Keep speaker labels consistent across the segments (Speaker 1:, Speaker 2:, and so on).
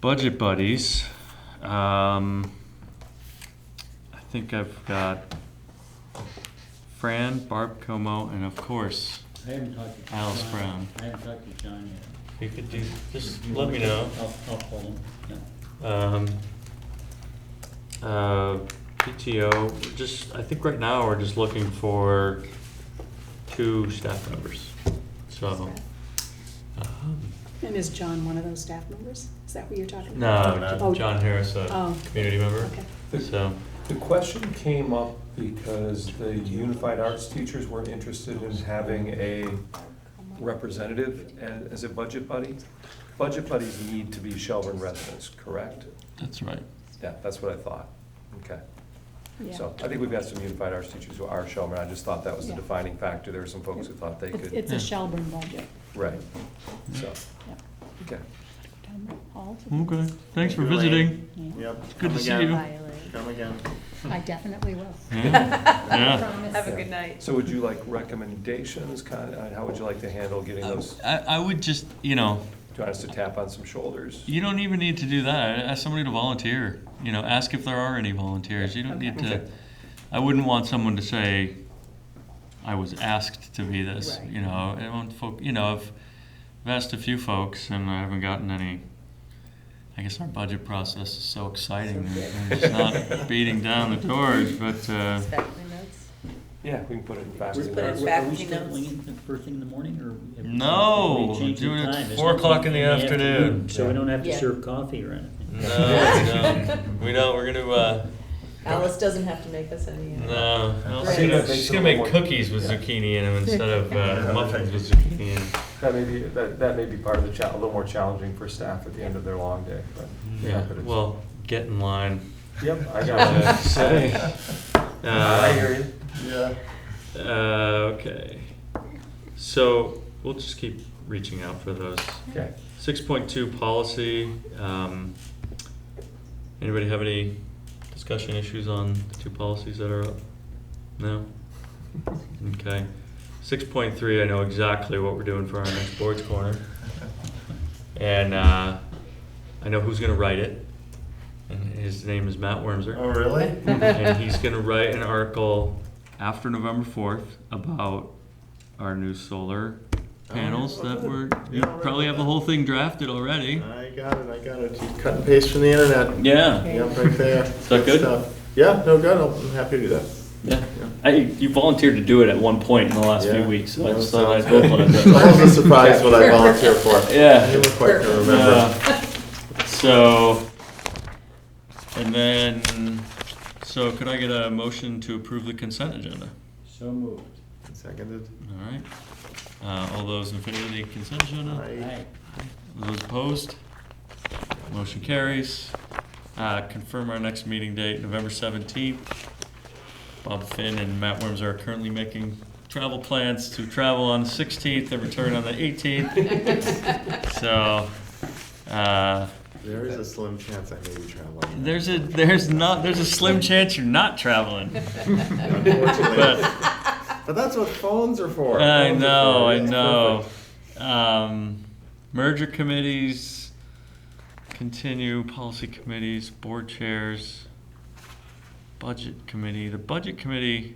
Speaker 1: Budget Buddies. Um, I think I've got Fran, Barb Como, and of course,
Speaker 2: I haven't talked to.
Speaker 1: Alice
Speaker 2: John.
Speaker 1: Brown.
Speaker 2: I haven't talked to John yet.
Speaker 3: You could do, just let me know.
Speaker 2: I'll, I'll call him, yeah.
Speaker 3: Um, uh, PTO, just, I think right now we're just looking for two staff members, so.
Speaker 1: Oh.
Speaker 3: um,
Speaker 4: And is John one of those staff members? Is that what you're talking
Speaker 3: No,
Speaker 4: about?
Speaker 3: not
Speaker 4: Oh,
Speaker 3: John Harris, a
Speaker 4: Oh.
Speaker 3: community member,
Speaker 4: Okay.
Speaker 5: Oh.
Speaker 3: so,
Speaker 6: The question came up because the Unified Arts teachers were interested in having a representative a- as a budget buddy. Budget buddies need to be Shelburne residents, correct?
Speaker 1: that's right.
Speaker 6: Yeah, that's what I thought. Okay.
Speaker 4: Yeah.
Speaker 6: So I think we've got some Unified Arts teachers who are Shelburne. I just thought that was the
Speaker 4: Yeah.
Speaker 6: defining factor. There were some folks who thought they
Speaker 4: It's-
Speaker 6: could,
Speaker 4: It's a Shelburne budget.
Speaker 6: right, so,
Speaker 4: Yeah.
Speaker 6: okay.
Speaker 4: Town hall.
Speaker 1: Okay, thanks for
Speaker 5: you, Elaine.
Speaker 1: visiting.
Speaker 4: Yeah.
Speaker 5: Yep.
Speaker 1: good
Speaker 5: come
Speaker 1: to see
Speaker 5: again.
Speaker 1: you.
Speaker 5: Come again.
Speaker 4: I definitely will.
Speaker 1: Yeah.
Speaker 4: I
Speaker 1: Yeah.
Speaker 4: promise.
Speaker 7: Have a good night.
Speaker 6: So would you like recommendations, kind of, how would you like to handle getting
Speaker 4: Oh.
Speaker 6: those,
Speaker 1: I, I would just, you know,
Speaker 6: do you want us to tap on some shoulders?
Speaker 1: you don't even need to do that. Ask somebody to volunteer. You know, ask if there are any volunteers. You don't need to.
Speaker 6: Okay.
Speaker 1: I wouldn't want someone to say, "I was asked to be this."
Speaker 4: Right.
Speaker 1: You know, I want folk. You know, I've I've asked a few folks, and I haven't gotten any. I guess our budget process is so exciting, and it's not beating down the doors, but. Uh,
Speaker 7: Faculty notes?
Speaker 6: Yeah, we can put it in
Speaker 2: We're-
Speaker 6: faculty
Speaker 7: put it
Speaker 6: notes.
Speaker 2: are-
Speaker 7: back
Speaker 2: Are we
Speaker 7: in
Speaker 2: still
Speaker 7: notes.
Speaker 2: doing it the first thing in the morning, or? have we-
Speaker 1: No,
Speaker 2: we changed
Speaker 1: doing
Speaker 2: the
Speaker 1: it
Speaker 2: time? It's
Speaker 1: 4 o'clock in the afternoon.
Speaker 2: So we don't have to
Speaker 7: Yeah.
Speaker 2: serve coffee or anything.
Speaker 3: no, no, we don't, we're gonna, uh,
Speaker 7: Alice doesn't have to make us any. uh,
Speaker 3: no. I don't
Speaker 7: Right.
Speaker 3: see that.
Speaker 6: Makes
Speaker 3: She's
Speaker 6: it a
Speaker 3: gonna make
Speaker 6: little more-
Speaker 3: cookies with
Speaker 6: Yeah.
Speaker 3: zucchini in them instead of uh, muffins with zucchini in 'em.
Speaker 6: That may be, that, that may be part of the cha, a little more challenging for staff at the end of their long day, but.
Speaker 3: Yeah,
Speaker 6: but it's-
Speaker 3: well, get in line.
Speaker 6: Yep, I got you.
Speaker 3: Say.
Speaker 6: Uh, I hear you.
Speaker 5: Yeah.
Speaker 3: Uh, okay. So we'll just keep reaching out for those.
Speaker 6: Okay.
Speaker 3: Six point two policy. Um, anybody have any discussion issues on the two policies that are up? No. Okay. Six point three. I know exactly what we're doing for our next boards corner, and uh, I know who's going to write it. And his name is Matt Wormser
Speaker 5: Oh, really?
Speaker 3: and he's gonna write an article.
Speaker 1: after November fourth about our new solar panels
Speaker 5: Oh, yeah.
Speaker 1: that were,
Speaker 5: Yeah,
Speaker 1: you
Speaker 5: I'll write
Speaker 1: probably
Speaker 5: that
Speaker 1: have the
Speaker 5: down.
Speaker 1: whole thing drafted already.
Speaker 5: I got it, I got it. Just Cut and paste from the internet.
Speaker 1: Yeah,
Speaker 5: Yep, right there.
Speaker 1: that good?
Speaker 5: stuff. Yeah, no, good. I'm happy to do that.
Speaker 1: yeah. I, you volunteered to do it at one point in the last
Speaker 5: Yeah.
Speaker 1: few weeks, so I
Speaker 5: Yeah,
Speaker 1: just
Speaker 5: so-
Speaker 1: thought I'd go on
Speaker 5: It's almost a surprise what I volunteer for.
Speaker 1: Yeah.
Speaker 5: You were quick to remember.
Speaker 1: Uh, So, and then, so could I get a motion to approve the consent agenda?
Speaker 2: So moved.
Speaker 5: Seconded.
Speaker 1: All right. Uh, all those in favor of the consent agenda?
Speaker 5: Aye.
Speaker 2: Aye.
Speaker 1: Those opposed? Motion carries. Uh, Confirm our next meeting date, November 17th. Bob Finn and Matt Worms are currently making travel plans to travel on the 16th and return on the 18th. So, uh,
Speaker 5: There is a slim chance I may be traveling.
Speaker 1: there's a, there's not, there's a slim chance you're not traveling.
Speaker 5: Unfortunately.
Speaker 1: But,
Speaker 5: But that's what phones are for.
Speaker 1: I
Speaker 5: Phones are
Speaker 1: know,
Speaker 5: for-
Speaker 1: I
Speaker 5: it's
Speaker 1: know.
Speaker 5: perfect.
Speaker 1: Um, merger committees continue, policy committees, board chairs, budget committee. The budget committee,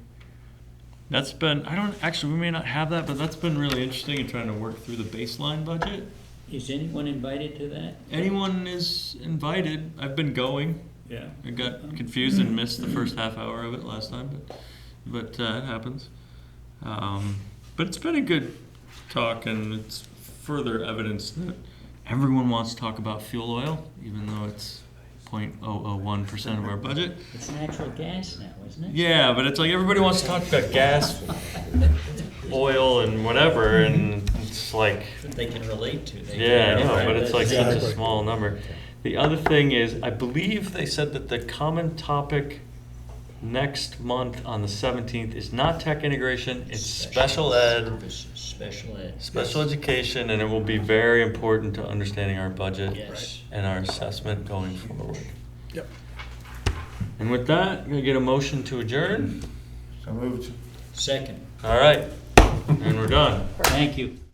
Speaker 1: that's been, I don't, actually, we may not have that, but that's been really interesting in trying to work through the baseline budget.
Speaker 2: Is anyone invited to that?
Speaker 1: Anyone is invited. I've been going.
Speaker 2: Yeah.
Speaker 1: I got confused and missed the first half hour of it last time, but, but uh, it happens. Um, but it's been a good talk, and it's further evidence that everyone wants to talk about fuel oil, even though it's 0.001% of our budget.
Speaker 2: It's natural gas now, isn't it?
Speaker 1: Yeah, but it's like everybody wants to talk about gas, oil, and whatever, and it's like,
Speaker 2: That they can relate to. They
Speaker 1: yeah,
Speaker 2: can
Speaker 1: I know,
Speaker 2: identify
Speaker 1: but it's like such a
Speaker 2: with.
Speaker 1: small number. The other thing is, I believe they said that the common topic next month on the seventeenth is not tech integration, it's special ed,
Speaker 2: Services, Special ed.
Speaker 1: special education, and it will be very important to understanding our budget
Speaker 2: Yes.
Speaker 1: and our assessment going forward. Yep. And with that, I'm gonna get a motion to adjourn.
Speaker 5: So moved.
Speaker 2: Second.
Speaker 1: All right, and we're done.
Speaker 2: Thank you.